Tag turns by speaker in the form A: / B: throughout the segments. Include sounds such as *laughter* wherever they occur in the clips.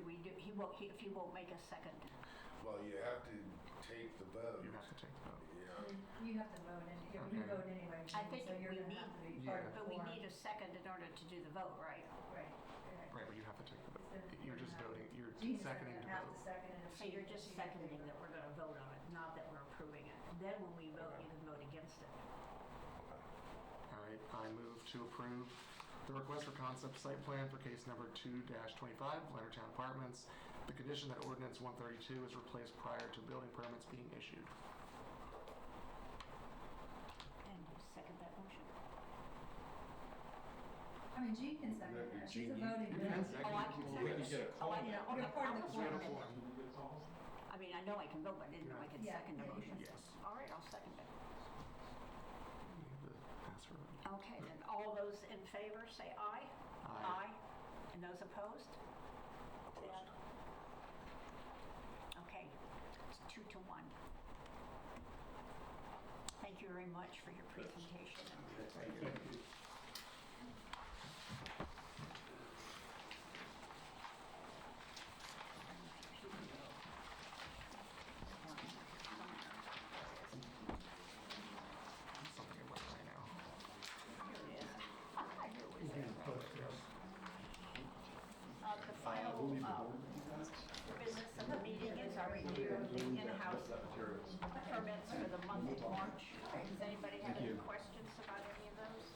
A: won't, he- if you won't make a second.
B: Well, you have to take the vote.
C: You have to take the vote.
B: You know,
D: You have to vote, and you're gonna
C: Okay.
D: vote anyway.
A: I think
D: so you're
A: we
D: gonna
A: need-
D: have to be
C: Yeah.
D: part of the
A: But we
D: quorum.
A: need a second in order to do the vote, right?
D: Right, right.
C: Right, but you have to take the vote.
D: So
C: You're just
D: we're gonna-
C: voting, you're
D: Gina's gonna
C: seconding to
D: have to
C: vote.
D: second it if
A: So
D: she-
A: you're just
D: she didn't do
A: seconding
D: it.
A: that we're going to vote on it, not that we're approving it. Then when we vote, you can vote against it.
C: All right, I move to approve the request for concept site plan for case number 2-25, Leonardtown Apartments. The condition that ordinance 132 is replaced prior to building permits being issued.
A: And you second that motion?
D: I mean, Jean can second
B: Yeah,
D: it. She's a
B: Jean,
D: voting
C: you can
D: member.
C: second.
A: Oh, I can
C: Well, we
A: second
C: can
B: get
A: it.
B: a
A: Oh, I
B: quorum.
A: know.
D: You're part of the
A: I
C: We have a
A: was-
D: quorum.
C: quorum.
A: I mean, I know I can vote, but I didn't know I could
D: Yeah.
A: second the motion.
C: Yes.
A: All right, I'll second it.
C: We have the password.
A: Okay, then, all those in favor, say aye. Aye. And those opposed?
B: Opposed.
A: Okay, it's two to one. Thank you very much for your presentation.
C: Oh. Something about right now.
A: Here it is. Here it is. Uh, The final uh, business of the meeting is our review of the in-house permits for the month of March. Does anybody have any questions about any of those?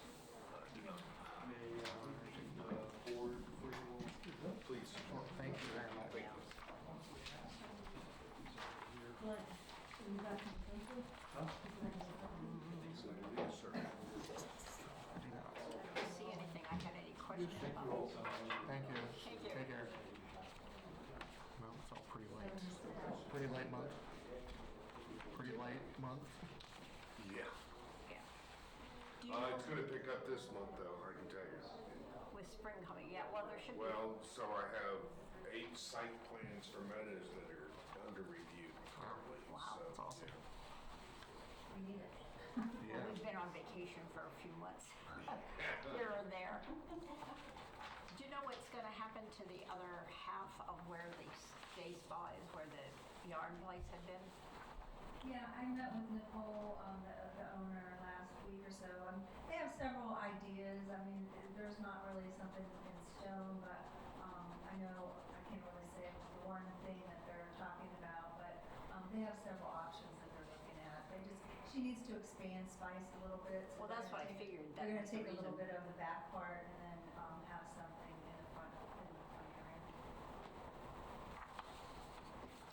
B: Please.
C: Well, thank you very much.
A: didn't see anything I had any questions about.
C: Thank you.
A: Thank you.
C: Take care. Well, it felt pretty light. Pretty light month. Pretty light month.
B: Yeah.
A: Yeah. Do you
B: Uh, it's
A: know
B: gonna pick up this month though, I can tell you.
A: with spring coming? Yeah, well, there should be.
B: Well, so I have eight site plans for meadows that are under review currently.
A: Wow.
B: so-
C: That's awesome.
D: We need it.
A: Well,
C: Yeah.
A: We've been on vacation for a few months, *laughs* here and there. Do you know what's going to happen to the other half of where the day spa is, where the yarn place had been?
D: Yeah, I met with Nicole, um, the, the owner, last week or so. Um, they have several ideas. I mean, there's not really something in stone, but um, I know I can't really say the one thing that they're talking about, but um, they have several options that they're looking at. They just she needs to expand Spice a little bit. so
A: Well, that's
D: they're
A: what I
D: gonna take-
A: figured. That
D: They're going
A: was
D: to
A: the
D: take a little
A: reason.
D: bit of the back part and then um, have something in the front in the front area.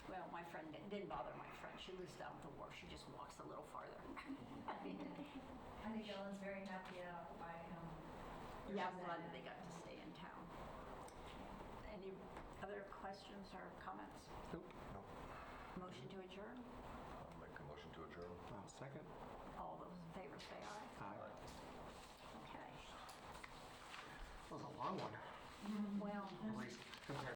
A: Well, my friend, it didn't bother my friend. She lives down at the wharf. She just walks a little farther. *laughs*
D: I think Ellen's very happy um, out by him.
A: Yeah, I'm glad that they got to stay in town. Any other questions or comments?
C: Nope.
A: Motion to adjourn?
E: I'll make a motion to adjourn.
C: Uh, Second.
A: All those in favor say aye.
C: Aye.
A: Okay.
C: That was a long one.
A: Well.
D: Mm-hmm.
A: Mm-hmm.
C: At least compared